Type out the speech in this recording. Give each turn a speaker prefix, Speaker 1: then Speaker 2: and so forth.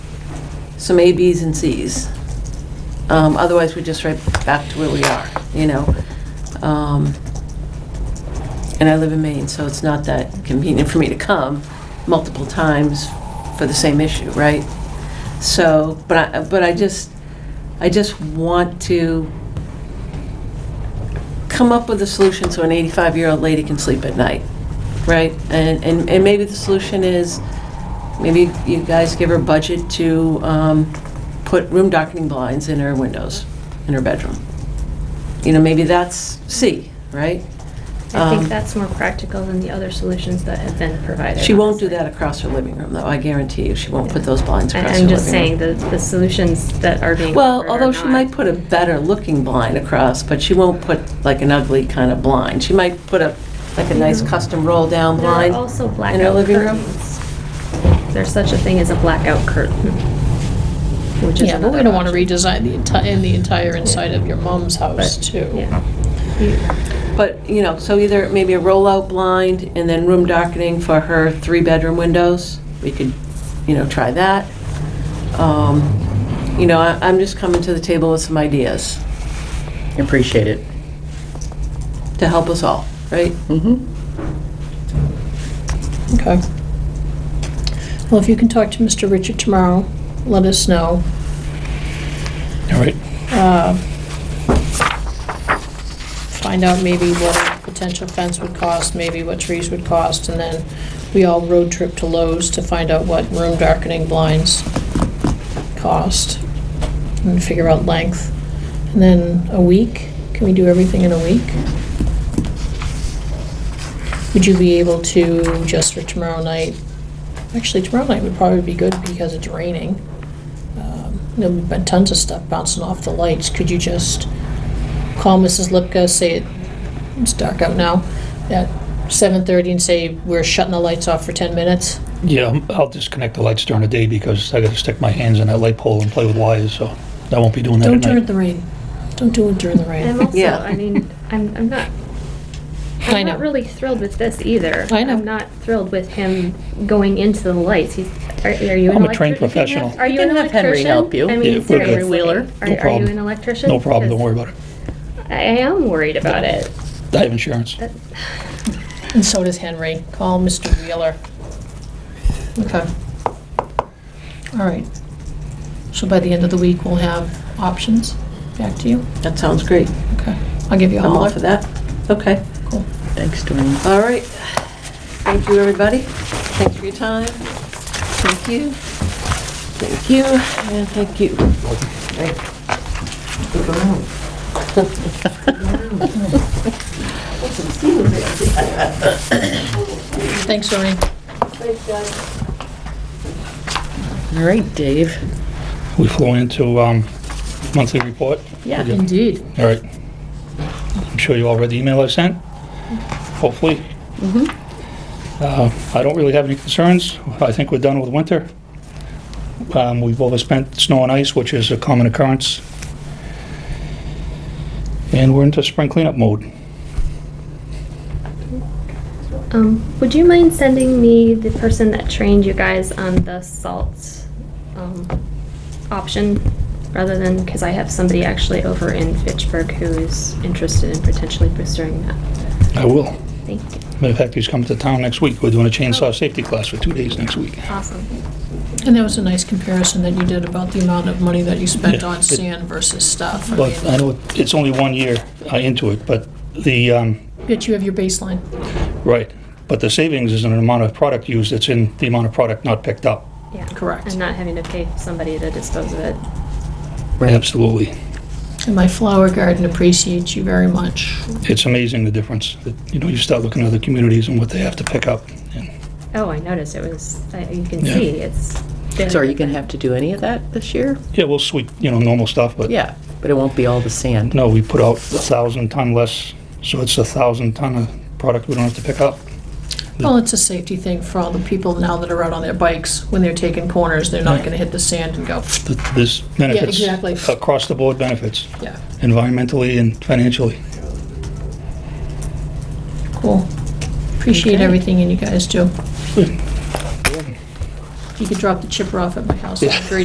Speaker 1: some A, Bs, and Cs. Um, Otherwise, we're just right back to where we are, you know? Um, And I live in Maine, so it's not that convenient for me to come multiple times for the same issue, right? So, but I, but I just, I just want to come up with a solution so an 85-year-old lady can sleep at night, right? And, and, and maybe the solution is, maybe you guys give her budget to um, put room darkening blinds in her windows, in her bedroom. You know, maybe that's C, right?
Speaker 2: I
Speaker 1: Um,
Speaker 2: think that's more practical than the other solutions that have been provided.
Speaker 1: She won't do
Speaker 2: honestly.
Speaker 1: that across her living room, though, I guarantee you, she won't put those blinds
Speaker 2: I-
Speaker 1: across her living room.
Speaker 2: I'm just saying, the, the solutions that are being.
Speaker 1: Well,
Speaker 2: offered are
Speaker 1: although she
Speaker 2: not-
Speaker 1: might put a better-looking blind across, but she won't put like an ugly kind of blind. She might put a, like a nice custom roll-down
Speaker 2: Mm-hmm. There are
Speaker 1: blind.
Speaker 2: also
Speaker 1: in her
Speaker 2: blackout
Speaker 1: living room.
Speaker 2: curtains. There's such a thing as a blackout curtain, which is
Speaker 3: Yeah, but we
Speaker 2: another
Speaker 3: don't want to
Speaker 2: option.
Speaker 3: redesign the entire, in the entire inside of your mom's house too.
Speaker 2: Yeah. You-
Speaker 1: But, you know, so either maybe a roll-out blind and then room darkening for her three-bedroom windows. We could, you know, try that. Um, You know, I- I'm just coming to the table with some ideas
Speaker 4: Appreciate it.
Speaker 1: to help us all, right?
Speaker 4: Mm-hmm.
Speaker 3: Okay. Well, if you can talk to Mr. Richard tomorrow, let us know.
Speaker 5: All right.
Speaker 3: Uh, Find out maybe what a potential fence would cost, maybe what trees would cost, and then we all road trip to Lowe's to find out what room darkening blinds cost and figure out length. And then a week, can we do everything in a week? Would you be able to, just for tomorrow night, actually tomorrow night would probably be good because it's raining. Um, There'll be bu- tons of stuff bouncing off the lights. Could you just call Mrs. Lipka, say it- it's dark out now, at 7:30 and say, "We're shutting the lights off for 10 minutes"?
Speaker 5: Yeah, I'm- I'll disconnect the lights during the day because I gotta stick my hands in that light pole and play with wires, so I won't be doing that
Speaker 3: Don't
Speaker 5: at
Speaker 3: do it in
Speaker 5: night.
Speaker 3: the rain. Don't do it during the
Speaker 2: And
Speaker 3: rain.
Speaker 2: I'm also,
Speaker 1: Yeah.
Speaker 2: I mean, I'm, I'm not,
Speaker 3: I
Speaker 2: I'm
Speaker 3: know.
Speaker 2: not really thrilled with this either.
Speaker 3: I know.
Speaker 2: I'm not thrilled with him going into the lights. He's, are are you an electrician?
Speaker 5: I'm a trained professional.
Speaker 2: Are
Speaker 4: You
Speaker 2: you
Speaker 4: can
Speaker 2: an
Speaker 4: have Henry
Speaker 2: electrician?
Speaker 4: help you.
Speaker 2: I
Speaker 5: Yeah,
Speaker 2: mean,
Speaker 5: we're good.
Speaker 2: seriously.
Speaker 4: Wheeler.
Speaker 2: Are,
Speaker 5: No
Speaker 2: are you
Speaker 5: problem.
Speaker 2: an electrician?
Speaker 5: No problem, don't
Speaker 2: Because
Speaker 5: worry about it.
Speaker 2: I I am worried about it.
Speaker 5: I have insurance.
Speaker 2: That-
Speaker 3: And so does Henry. Call Mr. Wheeler. Okay. All right. So by the end of the week, we'll have options. Back to you.
Speaker 1: That sounds great.
Speaker 3: Okay. I'll give you a
Speaker 1: I'm all
Speaker 3: holler.
Speaker 1: for that. Okay,
Speaker 3: Cool.
Speaker 4: Thanks, Dwayne.
Speaker 1: all right. Thank you, everybody. Thanks for your time. Thank you. Thank you, and thank you.
Speaker 3: Thanks, Doreen.
Speaker 4: All right, Dave.
Speaker 5: We flew into um, monthly report.
Speaker 4: Yeah.
Speaker 5: Okay.
Speaker 3: Indeed.
Speaker 5: All right. I'm sure you all read the email I sent, hopefully.
Speaker 3: Mm-hmm.
Speaker 5: Uh, I don't really have any concerns. I think we're done with winter. Um, We've overspent snow and ice, which is a common occurrence. And we're into spring cleanup mode.
Speaker 2: Um, would you mind sending me the person that trained you guys on the salt um, option rather than because I have somebody actually over in Fitchburg who is interested in potentially pursuing that.
Speaker 5: I will.
Speaker 2: Thank you.
Speaker 5: Matter of fact, he's coming to town next week. We're doing a chainsaw safety class for two days next week.
Speaker 2: Awesome.
Speaker 3: And that was a nice comparison that you did about the amount of money that you spent
Speaker 5: Yeah,
Speaker 3: on
Speaker 5: it-
Speaker 3: sand versus stuff. I
Speaker 5: But I
Speaker 3: mean,
Speaker 5: know it's only one year uh, into it, but the, um,
Speaker 3: Yet you have your baseline.
Speaker 5: right, but the savings is in the amount of product used, it's in the amount of product not picked up.
Speaker 2: Yeah.
Speaker 3: Correct.
Speaker 2: And not having to pay somebody to dispose of it.
Speaker 5: Absolutely.
Speaker 3: And my flower garden appreciates you very much.
Speaker 5: It's amazing the difference. that, You know, you start looking at other communities and what they have to pick up. and
Speaker 2: Oh, I noticed it was. I, you can
Speaker 5: Yeah.
Speaker 2: see it's. very
Speaker 4: So are you gonna
Speaker 2: different.
Speaker 4: have to do any of that this year?
Speaker 5: Yeah, we'll sweep, you know, normal stuff, but
Speaker 4: Yeah, but it won't be all the sand.
Speaker 5: no, we put out a thousand ton less, so it's a thousand ton of product we don't have to pick up.
Speaker 3: Well, it's a safety thing for all the people now that are out on their bikes. When they're taking corners, they're not gonna hit the sand and go,
Speaker 5: Th- This benefits,
Speaker 3: exactly.
Speaker 5: across the board benefits,
Speaker 3: yeah,
Speaker 5: environmentally and financially.
Speaker 3: cool. Appreciate
Speaker 4: Okay.
Speaker 3: everything you guys do. You could drop the chipper off at my house, I'd be